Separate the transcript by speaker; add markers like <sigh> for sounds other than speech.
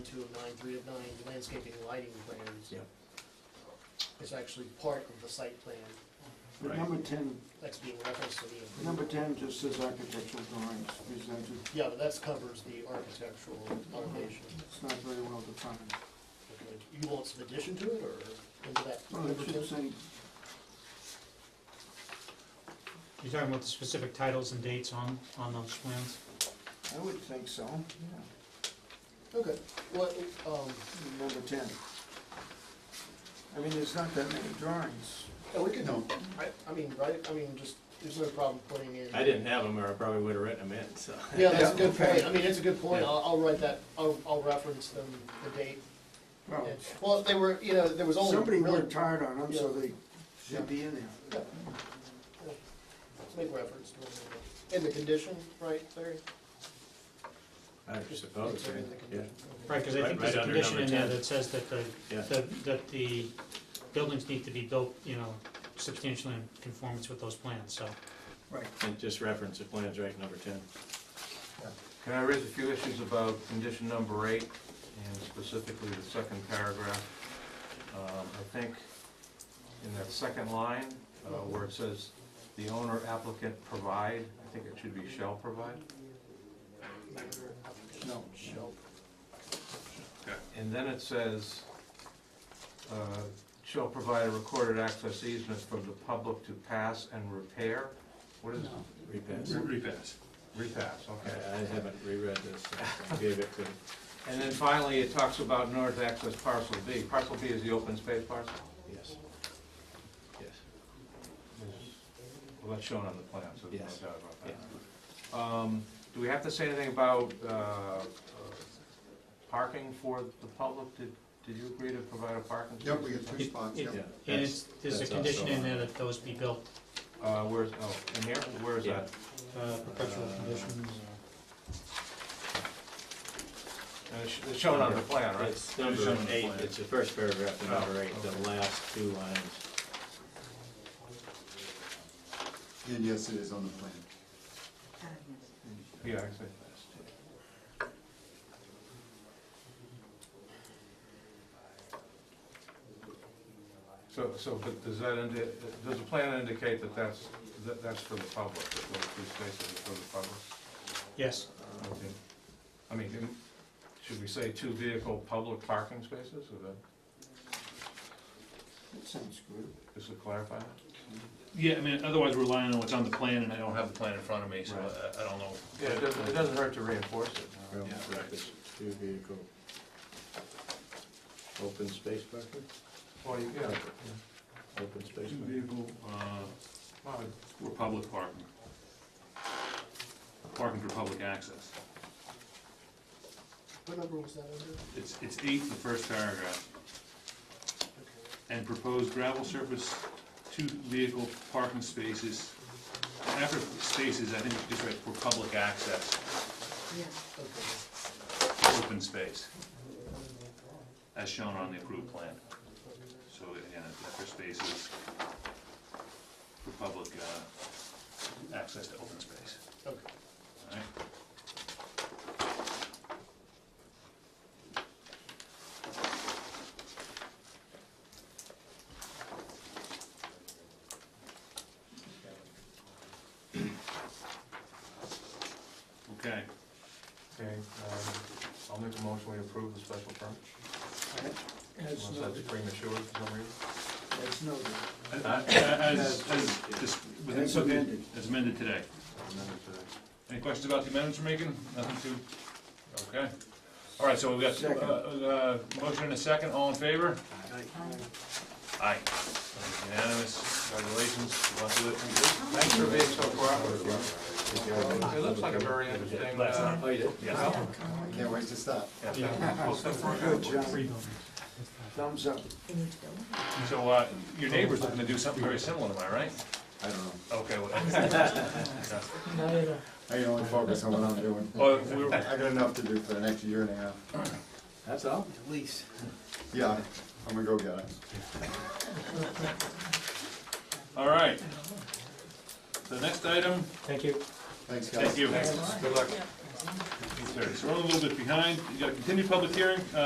Speaker 1: two of nine, three of nine landscaping lighting plans.
Speaker 2: Yep.
Speaker 1: It's actually part of the site plan
Speaker 2: Right.
Speaker 3: But number ten,
Speaker 1: that's being referenced to the approval.
Speaker 3: number ten just says architectural drawings presented,
Speaker 1: Yeah, but that covers the architectural elevation.
Speaker 3: it's not very well defined.
Speaker 1: Okay. You want some addition to it, or into that?
Speaker 3: Well, it should say,
Speaker 4: You're talking about the specific titles and dates on, on those plans?
Speaker 3: I would think so, yeah,
Speaker 1: Okay, well, um,
Speaker 3: number ten. I mean, there's not that many drawings.
Speaker 1: yeah, we could, I, I mean, right, I mean, just, there's no problem putting in.
Speaker 5: I didn't have them, or I probably would have written them in, so.
Speaker 1: Yeah, that's a good
Speaker 3: Yeah, okay.
Speaker 1: point, I mean, it's a good point,
Speaker 5: Yeah.
Speaker 1: I'll, I'll write that, I'll, I'll reference them, the date.
Speaker 3: Well,
Speaker 1: and- Well, they were, you know, there was only.
Speaker 3: Oh. somebody
Speaker 1: really-
Speaker 3: worked hard on them, so they should be in
Speaker 1: Yeah.
Speaker 3: there.
Speaker 1: Yeah. Make reference to it. In the condition, right, Larry?
Speaker 5: I suppose,
Speaker 1: Insert
Speaker 5: right?
Speaker 1: in the
Speaker 5: yeah,
Speaker 1: condition.
Speaker 4: Right, because I
Speaker 5: Right-
Speaker 4: think there's a
Speaker 5: right under
Speaker 4: condition
Speaker 5: number
Speaker 4: in there
Speaker 5: 10.
Speaker 4: that says that the,
Speaker 5: yeah.
Speaker 4: that- that the buildings need to be built, you know, substantially in conformance with those plans, so.
Speaker 3: Right.
Speaker 5: And just reference the plans, right, number ten.
Speaker 6: Can I raise a few issues about condition number eight, and specifically the second paragraph? Um, I think in that second line, uh, where it says, "The owner applicant provide," I think it should be "shall provide."
Speaker 3: No.
Speaker 1: Shall-
Speaker 6: And then it says, uh, "Shall provide a recorded access easement from the public to pass and repair." What is
Speaker 5: Repass.
Speaker 2: Repass.
Speaker 6: repass,
Speaker 5: I
Speaker 6: okay.
Speaker 5: I haven't reread this, I gave it to,
Speaker 6: And then finally, it talks about north access parcel B. Parcel B is the open space parcel?
Speaker 5: yes. Yes.
Speaker 6: Well, that's shown on the plan, so
Speaker 5: Yes.
Speaker 6: there's no doubt about that. Um, Do we have to say anything about uh, uh, parking for the public? Did Did you agree to provide a parking?
Speaker 7: Yep, we
Speaker 6: space?
Speaker 7: get three spots, yep.
Speaker 5: Yeah,
Speaker 4: And
Speaker 5: that's-
Speaker 4: it's, there's a
Speaker 5: that's
Speaker 4: condition
Speaker 5: also
Speaker 4: in
Speaker 5: on
Speaker 4: there that those be built,
Speaker 6: Uh, Where's, oh, in here? Where is
Speaker 5: Yeah.
Speaker 6: that?
Speaker 4: uh, perpetual
Speaker 5: Uh,
Speaker 4: conditions.
Speaker 6: And it's- It's shown on the plan, right?
Speaker 5: It's number eight, it's the first paragraph, of
Speaker 6: Oh,
Speaker 5: number eight,
Speaker 6: okay.
Speaker 5: the last two lines.
Speaker 7: And yes, it is on the plan.
Speaker 6: Yeah, exactly. So, so, but does that indi, does the plan indicate that that's, that that's for the public, that those two spaces are for the public?
Speaker 4: Yes,
Speaker 6: Okay. I mean, in- should we say two vehicle public parking spaces, or that,
Speaker 3: That sounds good.
Speaker 6: just to clarify that?
Speaker 8: Yeah, I mean, otherwise we're relying on what's on the plan, and I don't have the plan in front of me, so
Speaker 6: Right.
Speaker 8: I, I don't know.
Speaker 6: Yeah, it doesn't, it doesn't hurt to reinforce it.
Speaker 5: Well,
Speaker 8: Yeah.
Speaker 5: right, it's Two vehicle. Open space parking,
Speaker 6: Well, you, yeah,
Speaker 5: open space
Speaker 8: Two
Speaker 5: parking.
Speaker 8: vehicle, uh,
Speaker 6: well,
Speaker 8: or public parking. Parking for public access.
Speaker 1: What number was that under?
Speaker 8: It's, it's eight, the first paragraph.
Speaker 1: Okay.
Speaker 8: And proposed gravel surface, two vehicle parking spaces. After spaces, I think we just write for public access,
Speaker 1: Okay.
Speaker 8: open space. As shown on the approved plan. So, again, after spaces, for public, uh, access to open space.
Speaker 1: Okay.
Speaker 8: Alright. Okay,
Speaker 6: okay, um, I'll make a motion, we approve the special permit,
Speaker 3: As
Speaker 6: unless that's
Speaker 3: noted,
Speaker 6: bring the shore for some reason.
Speaker 3: as noted.
Speaker 8: as, as, as, dis- within-
Speaker 3: As amended.
Speaker 8: as amended today.
Speaker 6: Amended to-
Speaker 8: Any questions about the amendments we're making? Nothing to, okay. All right, so we've got,
Speaker 3: Second.
Speaker 8: uh, uh, motion and a second, all in favor? Aye. Unanimous, congratulations, good luck with
Speaker 6: Thanks for being so cooperative. It looks like a very interesting, uh,
Speaker 5: Oh, you did?
Speaker 8: it. Yeah.
Speaker 7: I can't wait to stop.
Speaker 3: Good job,
Speaker 4: Three buildings.
Speaker 3: thumbs up.
Speaker 8: So, uh, your neighbor's looking to do something very similar, am I right?
Speaker 7: I don't know.
Speaker 8: Okay, well,
Speaker 7: I can only focus on what I'm doing.
Speaker 8: <laughs> oh, we were-
Speaker 7: I got enough to do for the next year and a half.
Speaker 5: That's all?
Speaker 7: Yeah, I'm gonna go get it.
Speaker 8: all right. The next item,
Speaker 4: Thank you.
Speaker 7: Thanks, guys.
Speaker 8: thank you.
Speaker 6: good luck.
Speaker 8: necessary. So we're a little bit behind. You got a continued public hearing, uh,